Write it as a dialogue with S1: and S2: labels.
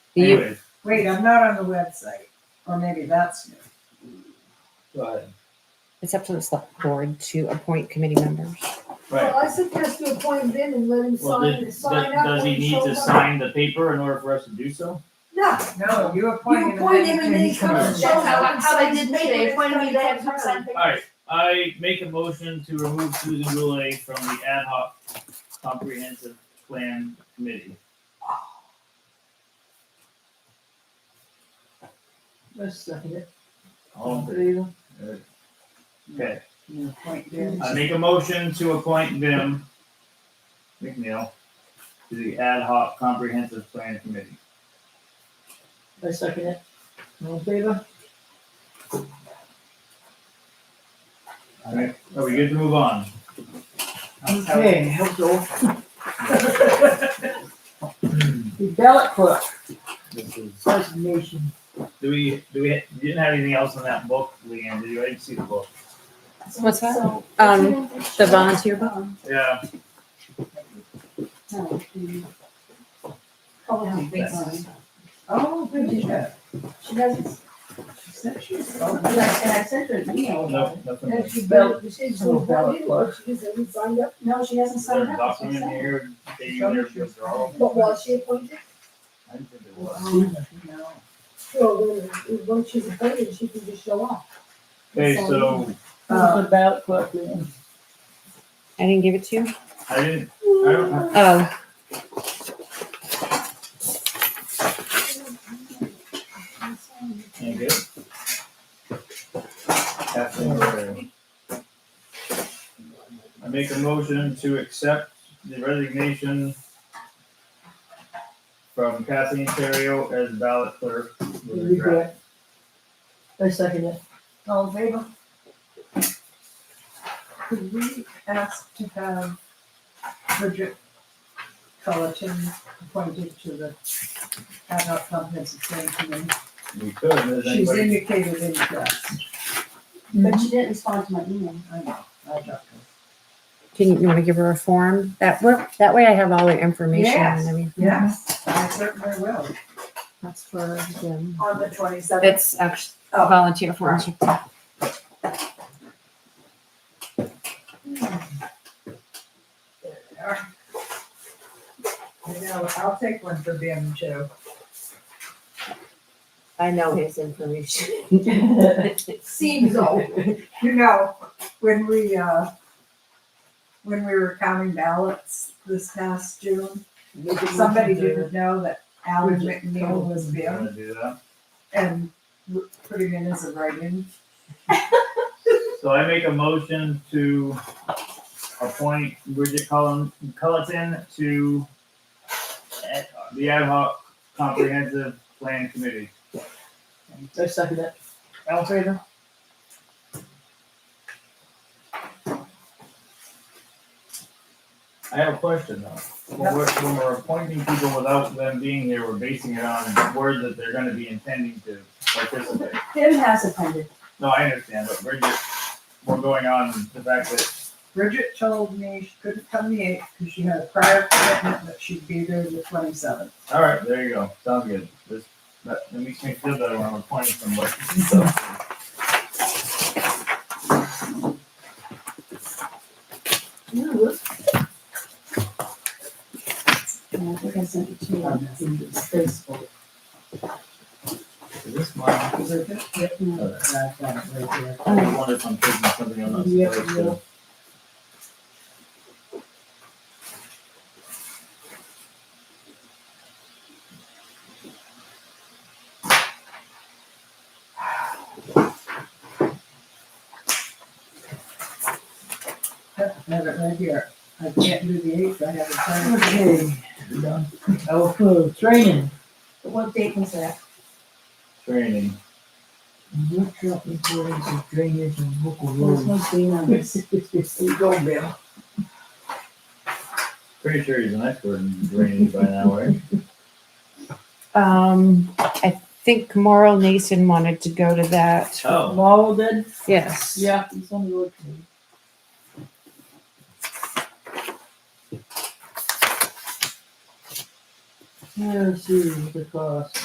S1: Do you,
S2: Anyway,
S3: Wait, I'm not on the website, or maybe that's new.
S2: go ahead.
S1: it's up to the select board to appoint committee members.
S2: Right.
S4: Well, I suggest you appoint him and let him
S2: Well,
S4: sign,
S2: does,
S4: sign up.
S2: does he
S4: when
S2: need to
S4: shows up.
S2: sign the paper in order for us to do so?
S4: No,
S3: No, you
S4: you
S3: appointed him.
S4: appoint him and then he
S3: he
S4: comes.
S5: That's
S4: shows
S3: comes.
S5: how-
S4: up and
S5: how they
S4: signs
S5: did
S4: the
S5: me. They
S4: paper and
S5: appointed me to
S4: everybody
S5: have him
S4: comes
S5: sign
S4: around.
S5: papers.
S2: Alright, I make a motion to remove Susan Goulet from the ad hoc comprehensive plan committee.
S5: Let's second it.
S2: All in favor? Okay,
S3: You appoint him.
S2: I Uh, make a motion to appoint Vim McNeil to the ad hoc comprehensive plan committee.
S5: I second it. All in favor?
S2: Alright, are we good to move on?
S5: Okay, help The ballot clerk
S2: This is,
S5: resignation.
S2: do we, do we, you didn't have anything else in that book, Leanne, did you? I didn't see the book.
S1: What's that?
S4: So-
S1: Um, The volunteer book?
S2: Yeah,
S4: Oh, no.
S3: Oh, good, yeah.
S4: She doesn't,
S3: She said she was-
S4: and I and I sent her an email.
S2: no, nothing.
S4: And she,
S5: Well,
S4: barely- she
S5: I'm a
S4: doesn't,
S5: ballot
S4: know. she hasn't signed up, no, she hasn't
S2: Is there a
S4: signed up. that's what
S2: document
S4: I'm saying.
S2: here dating their withdrawal?
S4: But was she appointed?
S2: I didn't think there was.
S3: Oh, no.
S4: Well, when- when she's appointed, she can just show up.
S2: Okay, so
S3: Uh,
S5: Who's the ballot clerk, Leanne?
S1: I didn't give it to you?
S2: I didn't, I don't have,
S1: Oh,
S2: any good? Kathleen Moran. I make a motion to accept the resignation from Kathleen Terrio as ballot clerk. with regret.
S5: Regret. I second it.
S3: All in favor? Could we ask to have Bridget Cullerton appointed to the ad hoc comprehensive plan committee?
S2: We could, does
S3: She's
S2: anybody,
S3: indicated interest.
S5: Mm-hmm.
S4: But she didn't respond to my email.
S3: I know, I talked to her.
S1: can you want to give her a form? That, wa- that way I have all the information
S3: Yes.
S1: and I mean,
S3: Yes, I certainly will.
S1: that's for them.
S4: On the twenty-seventh.
S1: It's actually
S4: Oh.
S1: volunteer form.
S3: You know, I'll take one for them too.
S1: I know his information.
S4: Seems old.
S3: You know, when we, uh, when we were counting ballots this past June, somebody didn't know that Alan McNeil was Bim
S2: wanna do that?
S3: and w- put him in as a write-in.
S2: So I make a motion to appoint Bridget Cullen, Culleton to ad- the ad hoc comprehensive plan committee.
S5: I second it. All in favor?
S2: I have a question though. When we're, when we're appointing people without them being here, we're basing it on word that they're gonna be intending to participate.
S4: Tim has attended.
S2: No, I understand, but we're just, we're going on the fact that,
S3: Bridget told me she couldn't come the eighth because she had a prior commitment, but she'd be there the twenty-seventh.
S2: all right, there you go, sounds good. This, that, that makes me feel better when I'm appointing somebody, so.
S5: Yeah, look.
S4: And I think I sent it to you on Facebook.
S2: Is this mine?
S3: Bridget?
S2: Okay.
S4: Yeah.
S3: I've got it right there.
S2: I always wonder if I'm taking something I'm not
S5: Yeah,
S2: supposed to.
S3: Yep, I have it right here. I can't do the eighth, I have a prior. commitment.
S5: Okay. Okay, training.
S4: What date was that?
S2: Training.
S5: Workshop employees of drainage and local
S4: There's
S5: roads.
S4: no date on this.
S5: You go, Bill.
S2: Pretty sure he's an expert in training by now, right?
S1: Um, I think Morrow Nason wanted to go to that.
S2: Oh.
S5: Law did?
S1: Yes.
S5: Yeah, he's on the road. Yeah, see, the cost.